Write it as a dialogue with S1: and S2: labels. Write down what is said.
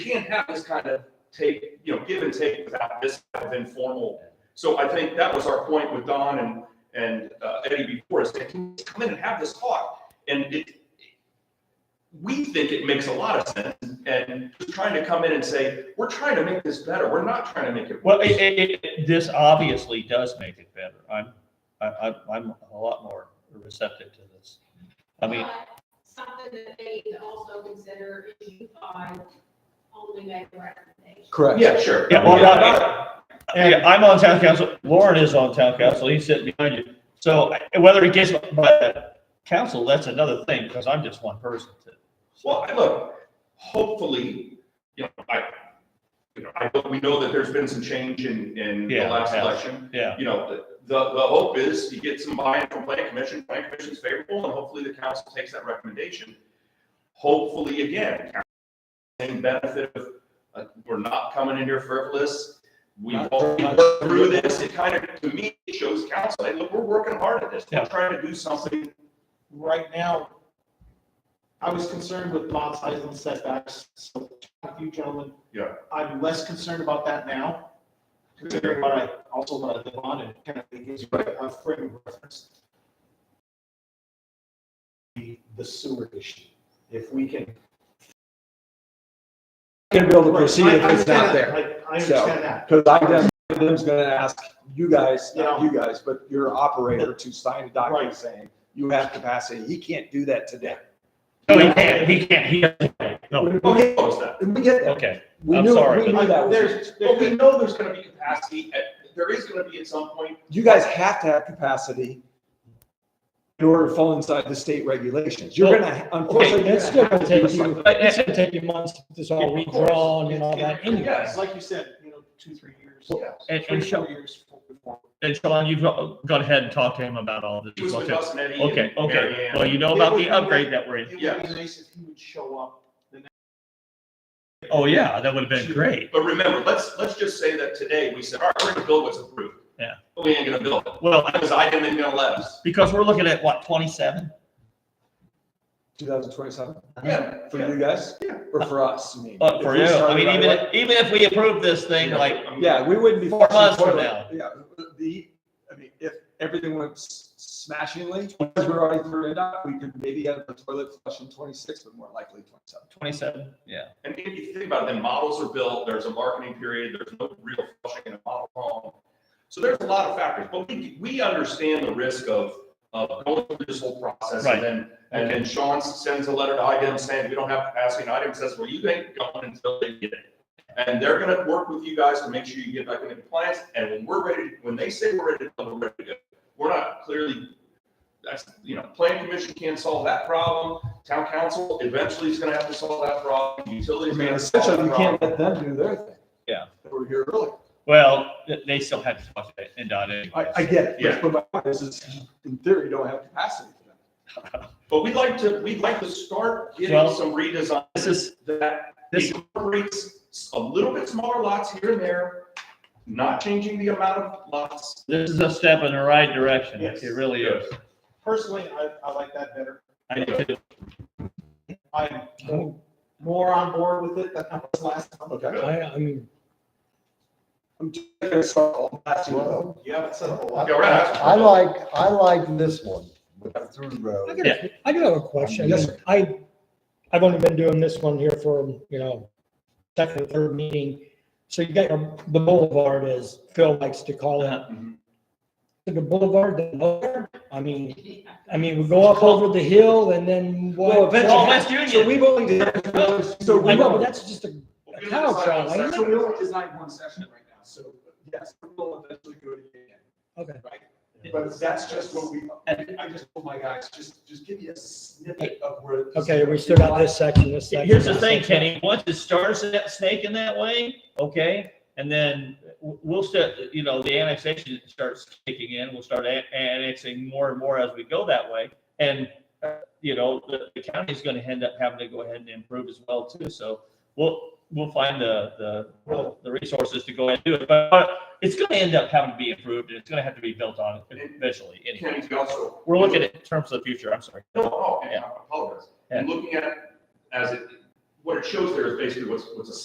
S1: can't have this kind of take, you know, give and take without this kind of informal. So I think that was our point with Don and, and uh, Eddie before, is that can we come in and have this talk? And it, we think it makes a lot of sense, and just trying to come in and say, we're trying to make this better, we're not trying to make it.
S2: Well,
S1: worse.
S2: it, it, it, this obviously does make it better. I'm, I, I'm, I'm a lot more receptive to this. I mean,
S3: But Uh, Something that they need to also consider is you five only make a recommendation.
S4: Correct.
S1: Yeah, sure.
S2: Yeah, well,
S1: Yeah,
S2: not-
S1: not-
S2: hey, I'm on town council, Lauren is on town council, he's sitting behind you. So whether it gets by the council, that's another thing, because I'm just one person to.
S1: Well, I- look, hopefully, you know, I, you know, I, we know that there's been some change in, in the
S2: Yeah,
S1: last
S2: yeah.
S1: election.
S2: Yeah,
S1: you know, the, the, the hope is you get some buy-in from planning commission, planning commission's favorable, and hopefully the council takes that recommendation. Hopefully, again, same benefit of, uh, we're not coming in here frivolous. We've
S4: Not-
S1: already
S4: not-
S1: worked through this, it kind of, to me, it shows council, hey, look, we're working hard at this, we're
S2: Yeah.
S1: trying to do something.
S4: Right now, I was concerned with lot size and setbacks, so talking to you gentlemen.
S1: Yeah.
S4: I'm less concerned about that now, considering what I, also what I live on and kind of gives you a uh, frame of reference. The, the sewer issue, if we can.
S5: gonna be able to proceed if it's not there.
S4: I I understand that.
S5: Because I guess them's gonna ask you guys, not
S4: Yeah.
S5: you guys, but your operator to sign a document
S4: Right.
S5: saying you have capacity. He can't do that today.
S2: no, he can't, he can't, he, doesn't. no,
S5: Okay,
S1: What was that?
S5: and we get that.
S2: okay,
S5: We
S2: I'm
S5: knew,
S2: sorry,
S5: we
S2: but-
S5: knew that. was-
S4: There's,
S1: But we
S4: there's,
S1: know there's gonna be capacity, at- there is gonna be at some point,
S5: You guys have to have capacity in order to fall inside the state regulations. You're gonna, unfortunately,
S6: It's
S5: you're
S6: still
S5: gonna
S6: gonna
S5: have to
S6: take
S5: do
S6: you,
S5: some-
S6: it's gonna take you months to get this all
S1: Of course.
S6: redrawn and all that anyway.
S1: Yes.
S4: like you said, you know, two, three years.
S1: yeah.
S2: and,
S4: Three,
S2: and Sean,
S4: four years before.
S2: and Sean, you've gone gone ahead and talked to him about all this.
S1: It was with
S2: Okay,
S1: us and Eddie and
S2: okay,
S1: Mary
S2: okay.
S1: Ann.
S2: Well, you know about the upgrade that we're in.
S4: It would be
S1: Yeah.
S4: nice if he would show up.
S2: Oh, yeah, that would have been great.
S1: But remember, let's, let's just say that today, we said, all right, we're gonna build what's approved.
S2: Yeah.
S1: But we ain't gonna build it,
S2: Well,
S1: because I didn't, even gonna let us.
S2: because we're looking at what, twenty-seven?
S5: 2027
S1: Yeah,
S5: for you guys
S1: Yeah.
S5: or for us? I mean,
S2: Uh, for
S5: if we
S2: you, I
S5: started
S2: mean,
S5: right
S2: even,
S5: away-
S2: if- even if we approve this thing, like,
S5: Yeah, we wouldn't be.
S2: Four months
S5: flushing
S2: from
S5: toilet. Yeah, the, I mean, if everything went s- smashingly, because we're already through it up, we could maybe have a toilet flush in twenty-six, but more likely twenty-seven.
S2: twenty-seven, yeah.
S1: And if you think about it, then models are built, there's a marketing period, there's no real flushing in a model home. So there's a lot of factors, but we, we understand the risk of, of going through this whole process
S2: Right.
S1: and then, and then Sean sends a letter to IDEM saying, we don't have capacity, and IDEM says, well, you ain't going until they get it. And they're gonna work with you guys to make sure you get back into compliance, and when we're ready, when they say we're ready, to go, we're ready to go. We're not clearly, that's, you know, planning commission can't solve that problem, town council eventually is gonna have to solve that problem, utilities.
S5: I
S1: are
S5: mean,
S1: gonna have to solve
S5: essentially, you
S1: that
S5: can't
S1: problem.
S5: let them do their thing.
S2: Yeah.
S5: They We're here earlier.
S2: Well, th- they still had to talk to NDOT
S5: I, I
S2: anyways.
S5: get
S1: Yeah.
S5: it, but my point is, is in theory, you don't have capacity for them.
S1: But we'd like to, we'd like to start getting
S2: Well-
S1: some redesign
S2: This is,
S1: that
S2: this,
S1: incorporates a little bit smaller lots here and there, not changing the amount of lots.
S2: this is a step in the right direction, it
S4: Yes.
S2: really is.
S4: Personally, I, I like that better.
S2: I do too.
S4: I'm more on board with it than I was last time.
S5: Okay.
S6: I, I mean,
S5: I'm just gonna start all that you know.
S4: Yeah, it says a lot.
S1: Yeah, right.
S7: I like, I like this one with the through
S6: I
S7: road.
S6: got, a- I do have a question.
S5: Yes, sir.
S6: I, I've only been doing this one here for, you know, second or third meeting. So you got your, the boulevard as Phil likes to call it.
S1: Mhm.
S6: The boulevard, the boulevard, I mean,
S3: Uh,
S6: I mean, we go up over the hill and then what?
S5: Well, eventually-
S2: Well, West
S5: So
S2: Union,
S5: we've only, so we
S6: I know, but
S5: don't,
S6: that's just a, A cow trial, ain't it?
S5: so we only designed one session right now, so yes, we'll eventually go to the end.
S6: okay.
S5: But that's just what we, I just told my guys, just, just give me a snippet of where.
S6: Okay, we still got this section, this section.
S2: here's the
S6: this
S2: thing,
S6: section.
S2: Kenny, once it starts that snake in that way, okay? And then w- we'll start, you know, the annexation starts kicking in, we'll start an- annexing more and more as we go that way. And, uh, you know, the, the county's gonna end up having to go ahead and improve as well too, so we'll, we'll find the, the, the resources to go ahead and do it. But it's gonna end up having to be improved, and it's gonna have to be built on eventually, anyway.
S1: Kenny's also.
S2: We're looking at in terms of the future, I'm sorry.
S1: No, oh, yeah, I apologize.
S2: Yeah.
S1: I'm looking at, it as it, what it shows there is basically what's, what's a